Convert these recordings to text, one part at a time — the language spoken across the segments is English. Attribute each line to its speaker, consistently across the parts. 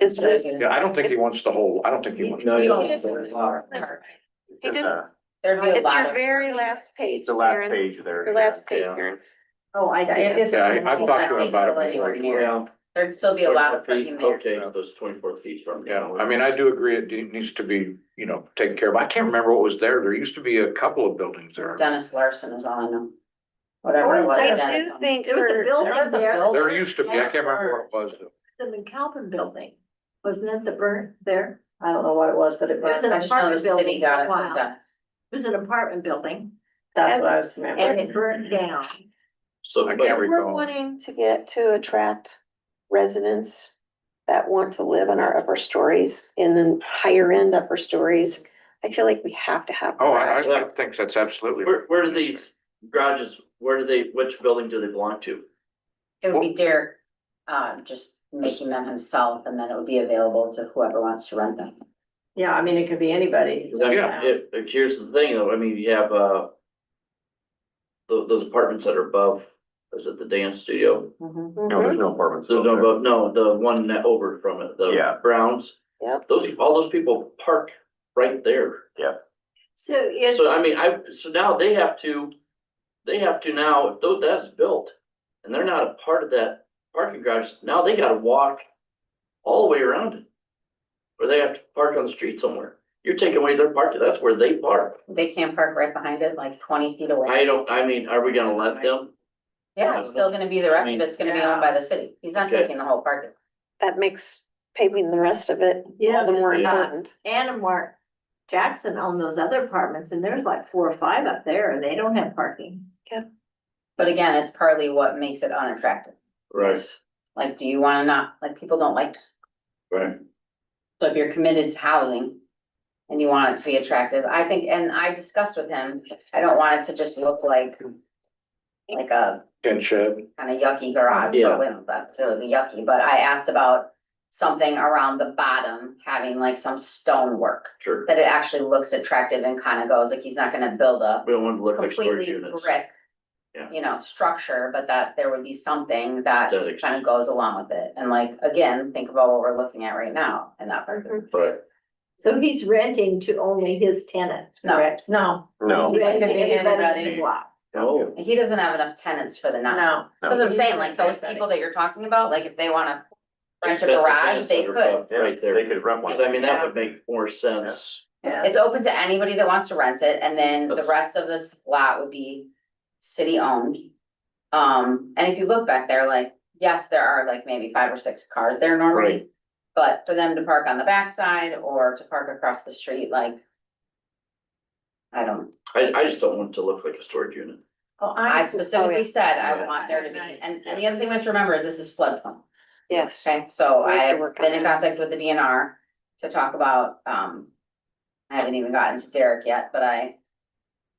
Speaker 1: Is this?
Speaker 2: Yeah, I don't think he wants the whole, I don't think he wants.
Speaker 3: No, you don't.
Speaker 1: If
Speaker 2: It's just, uh,
Speaker 3: There'd be a lot
Speaker 1: your
Speaker 3: of.
Speaker 1: very last page.
Speaker 2: It's the last
Speaker 1: Karen,
Speaker 2: page there.
Speaker 1: Your last page,
Speaker 2: Yeah.
Speaker 1: Karen.
Speaker 3: Oh, I
Speaker 1: see.
Speaker 2: Yeah, I- I've talked to him about it before.
Speaker 3: before. There'd still be a lot of parking there.
Speaker 4: Okay, those twenty-four feet from.
Speaker 2: Yeah, I mean, I do agree, it de- needs to be, you know, taken care of. I can't remember what was there. There used to be a couple of buildings there.
Speaker 3: Dennis Larson is on them. Whatever it was.
Speaker 1: I
Speaker 3: Dennis
Speaker 1: do
Speaker 3: owned.
Speaker 1: think
Speaker 5: There was a
Speaker 1: for-
Speaker 5: building
Speaker 1: there was a
Speaker 5: there.
Speaker 1: building.
Speaker 2: There used to be, I can't remember what it was.
Speaker 5: The McAlpin building, wasn't it the burnt there?
Speaker 3: I don't know what it was, but it
Speaker 5: There
Speaker 3: was,
Speaker 5: was an
Speaker 3: I just know the
Speaker 5: apartment
Speaker 3: city
Speaker 5: building for
Speaker 3: got
Speaker 5: a
Speaker 3: it from
Speaker 5: while.
Speaker 3: Dennis.
Speaker 5: It was an apartment building
Speaker 3: That's what I was remembering.
Speaker 5: and it burned down.
Speaker 4: So,
Speaker 2: I
Speaker 4: but-
Speaker 2: can't
Speaker 1: If We're
Speaker 2: recall.
Speaker 1: wanting to get to attract residents that want to live in our upper stories, in the higher end upper stories. I feel like we have to have.
Speaker 2: Oh, I, I I think that's absolutely.
Speaker 4: where, where do these garages, where do they, which building do they belong to?
Speaker 3: It would be Derek, uh, just making them himself and then it would be available to whoever wants to rent them.
Speaker 5: Yeah, I mean, it could be anybody.
Speaker 4: I mean,
Speaker 2: Yeah.
Speaker 4: it- it- here's the thing, though, I mean, you have, uh. tho- those apartments that are above, is it the dance studio?
Speaker 3: Mm-hmm.
Speaker 6: No,
Speaker 1: Mm-hmm.
Speaker 6: there's no apartments.
Speaker 4: There's no,
Speaker 6: out there.
Speaker 4: above- no, the one that over from it,
Speaker 6: Yeah.
Speaker 4: the Browns.
Speaker 1: Yep.
Speaker 4: Those, all those people park right there.
Speaker 5: So is,
Speaker 4: So I mean, I, so now they have to, they have to now, if tho- that's built and they're not a part of that parking garage, now they gotta walk all the way around it. Or they have to park on the street somewhere. You're taking away their parking, that's where they park.
Speaker 3: They can't park right behind it, like twenty feet away.
Speaker 4: I don't, I mean, are we gonna let them?
Speaker 3: Yeah, it's still gonna be the rest,
Speaker 4: I mean-
Speaker 3: but it's gonna be owned by the city. He's not
Speaker 4: Okay.
Speaker 3: taking the whole parking.
Speaker 1: That makes paving the rest of it
Speaker 5: yeah,
Speaker 1: all the more
Speaker 5: because, uh,
Speaker 1: important.
Speaker 5: Anna Mark Jackson owned those other apartments and there's like four or five up there and they don't have parking.
Speaker 3: But again, it's partly what makes it unattractive.
Speaker 4: Right,
Speaker 3: Like, do you wanna not, like, people don't like,
Speaker 4: right.
Speaker 3: so if you're committed to housing. And you want it to be attractive, I think, and I discussed with him, I don't want it to just look like. Like a
Speaker 2: Tin shed.
Speaker 3: kind of yucky garage,
Speaker 4: Yeah.
Speaker 3: but with that, so the yucky, but I asked about. Something around the bottom, having like some stonework,
Speaker 4: Sure.
Speaker 3: that it actually looks attractive and kind of goes, like, he's not gonna build a.
Speaker 4: We don't want to look like storage
Speaker 3: completely
Speaker 4: units.
Speaker 3: brick.
Speaker 4: Yeah.
Speaker 3: You know, structure, but that there would be something that
Speaker 4: That ex-
Speaker 3: kind of goes along with it, and like, again, think about what we're looking at right now in that part.
Speaker 4: Right.
Speaker 5: So he's renting to only his tenants,
Speaker 3: No.
Speaker 5: correct? No.
Speaker 6: No.
Speaker 5: He's renting to
Speaker 7: Anybody.
Speaker 5: Anybody in the block.
Speaker 4: Oh,
Speaker 3: He doesn't have enough tenants for the night,
Speaker 7: No.
Speaker 3: that's what I'm saying, like, those people that you're talking about, like, if they wanna rent a
Speaker 4: Except the
Speaker 3: garage,
Speaker 4: tenants
Speaker 3: they
Speaker 4: that are
Speaker 3: could.
Speaker 4: above,
Speaker 6: Yeah,
Speaker 4: Right
Speaker 6: They
Speaker 4: there.
Speaker 6: could rent one.
Speaker 4: I mean, that would make more sense.
Speaker 5: Yeah.
Speaker 3: It's open to anybody that wants to rent it, and then the
Speaker 4: That's-
Speaker 3: rest of this lot would be city owned. Um, and if you look back there, like, yes, there are like maybe five or six cars there normally.
Speaker 4: Right.
Speaker 3: But for them to park on the backside or to park across the street, like. I don't,
Speaker 4: I, I just don't want it to look like a storage unit.
Speaker 5: Oh,
Speaker 3: I
Speaker 5: I,
Speaker 3: specifically said I
Speaker 4: Yeah.
Speaker 3: want there to be, and, and the other thing we have to remember is this is floodplain.
Speaker 1: Yes.
Speaker 3: Okay, so
Speaker 1: We
Speaker 3: I
Speaker 1: have to
Speaker 3: have
Speaker 1: work on
Speaker 3: been in
Speaker 1: that.
Speaker 3: contact with the DNR to talk about, um, I haven't even gotten to Derek yet, but I,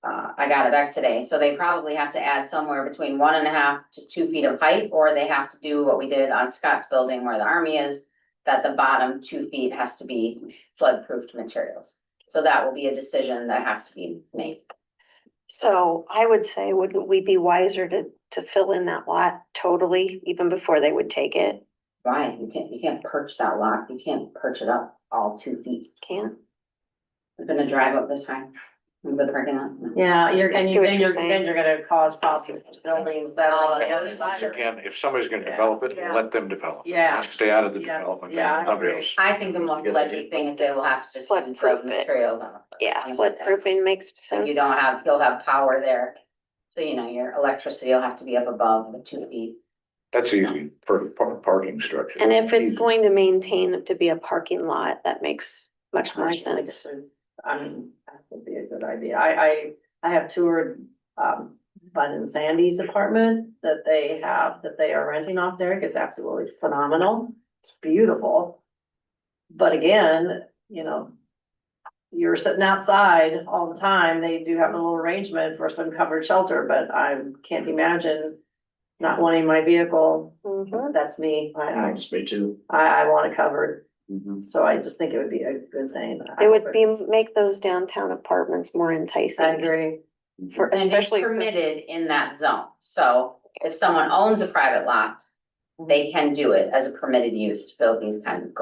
Speaker 3: uh, I got it back today, so they probably have to add somewhere between one and a half to two feet of height, or they have to do what we did on Scott's building where the army is, that the bottom two feet has to be flood-proofed materials. So that will be a decision that has to be made.
Speaker 1: So I would say, wouldn't we be wiser to, to fill in that lot totally, even before they would take it?
Speaker 3: Why? You can't, you can't perch that lock, you can't perch it up all two feet.
Speaker 1: Can't?
Speaker 3: We're gonna drive up this high, move the parking lot. No.
Speaker 7: Yeah, you're,
Speaker 1: I
Speaker 7: and
Speaker 1: see
Speaker 7: you-
Speaker 1: what
Speaker 7: then
Speaker 1: you're
Speaker 7: you're,
Speaker 1: saying. Oh,
Speaker 7: then you're gonna cause problems for buildings that are on the other
Speaker 2: Once
Speaker 7: side.
Speaker 2: again, if somebody's gonna develop it,
Speaker 5: Yeah.
Speaker 2: let them develop. it.
Speaker 7: Yeah.
Speaker 2: Stay out of the
Speaker 7: Yeah.
Speaker 2: development,
Speaker 7: Yeah, I
Speaker 2: somebody
Speaker 7: agree.
Speaker 2: else.
Speaker 3: I think the most
Speaker 4: Good
Speaker 3: likely
Speaker 4: idea.
Speaker 3: thing is they will have to just.
Speaker 1: Flood
Speaker 3: use the
Speaker 1: proof it.
Speaker 3: materials on it.
Speaker 1: Yeah, what grouping makes
Speaker 3: So you
Speaker 1: sense?
Speaker 3: don't have, you'll have power there. So you know, your electricity will have to be up above the two feet.
Speaker 2: That's easy for par- parking structure.
Speaker 1: And if it's
Speaker 2: Easy.
Speaker 1: going to maintain to be a parking lot, that makes much more sense.
Speaker 7: I mean, that would be a good idea. I, I, I have toured, um, Bud and Sandy's apartment that they have, that they are renting off there. It's absolutely phenomenal. It's beautiful. But again, you know, you're sitting outside all the time. They do have a little arrangement for some covered shelter, but I can't imagine not wanting my vehicle.
Speaker 1: Mhm.
Speaker 7: That's me. I, I,
Speaker 4: It's me too.
Speaker 7: I, I want it covered.
Speaker 6: Mm-hmm.
Speaker 7: So I just think it would be a good thing.
Speaker 1: It would be, make those downtown apartments more
Speaker 7: I
Speaker 1: enticing
Speaker 7: agree.
Speaker 1: for,
Speaker 3: And it's
Speaker 1: especially. for-
Speaker 3: permitted in that zone. So if someone owns a private lot, they can do it as a permitted use to build these kinds of